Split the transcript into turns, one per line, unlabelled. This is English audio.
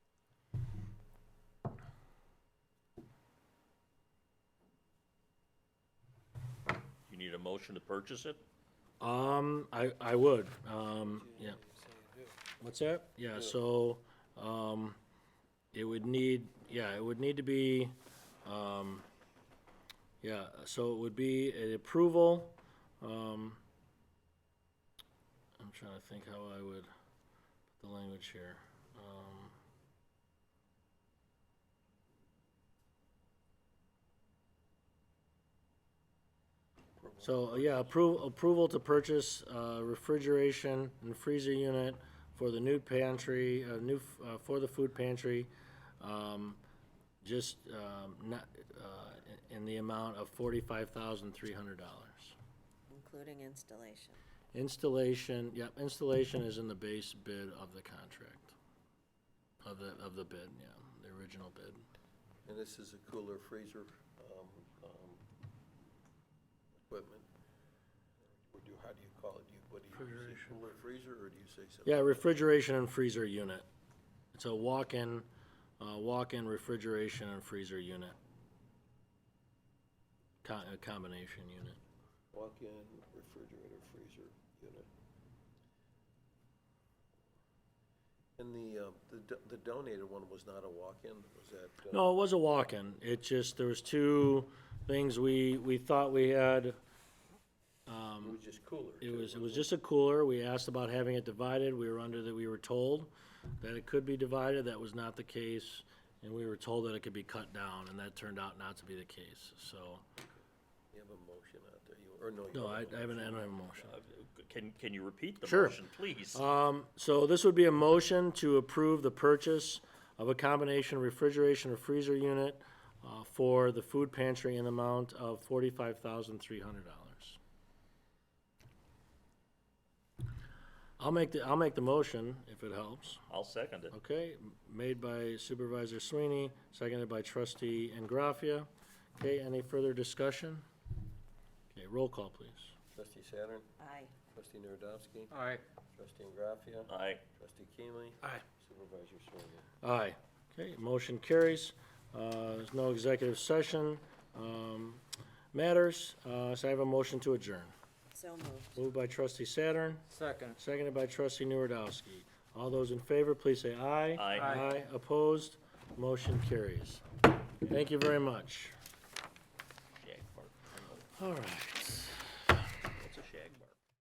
motion to purchase it?
Um, I, I would, um, yeah. What's that? Yeah, so, um, it would need, yeah, it would need to be, um, yeah, so it would be an approval, um, I'm trying to think how I would, put the language here, um. So, uh, yeah, approval, approval to purchase, uh, refrigeration and freezer unit for the new pantry, uh, new, f- uh, for the food pantry. Um, just, um, not, uh, in the amount of forty-five thousand, three hundred dollars.
including installation.
Installation, yep, installation is in the base bid of the contract. Of the, of the bid, yeah, the original bid.
And this is a cooler freezer, um, um, equipment. Or do, how do you call it? Do you, what do you, say cooler freezer, or do you say something?
Yeah, refrigeration and freezer unit. It's a walk-in, uh, walk-in refrigeration and freezer unit. Co- a combination unit.
Walk-in refrigerator freezer unit. And the, uh, the do- the donated one was not a walk-in, was that? uh,
No, it was a walk-in. It just, there was two things we, we thought we had.
It was just cooler.
It
too,
was, it
wasn't
was just a cooler. We asked about having it divided. We were under the, we were told that it could be divided. That was not the case. And we were told that it could be cut down, and that turned out not to be the case, so.
You have a motion out there, you, or no? you
No,
don't
I,
have a
I haven't, I don't have a motion.
Uh, Can, can you repeat the
Sure.
motion, please?
Um, so this would be a motion to approve the purchase of a combination refrigeration or freezer unit uh, for the food pantry in the amount of forty-five thousand three hundred dollars. I'll make the, I'll make the motion if it helps.
I'll second it.
Okay, m- made by Supervisor Sweeney, seconded by Trustee Ingraffia. Okay, any further discussion? Okay, roll call, please.
Trustee Saturn,
Aye.
trustee Narodowski,
Aye.
trustee Graffia,
Uh,
Aye.
trustee Keenly,
Aye.
supervisor Serena.
Aye. Okay, motion carries. Uh, There's no executive session um, matters, Uh, so I have a motion to adjourn.
So moved.
Moved by trustee Saturn,
Second.
seconded by trustee Nuredowski. All those in favor, please say aye.
Aye.
Aye.
Aye, opposed, motion carries. Thank you very much.
Jack Mark.
All right.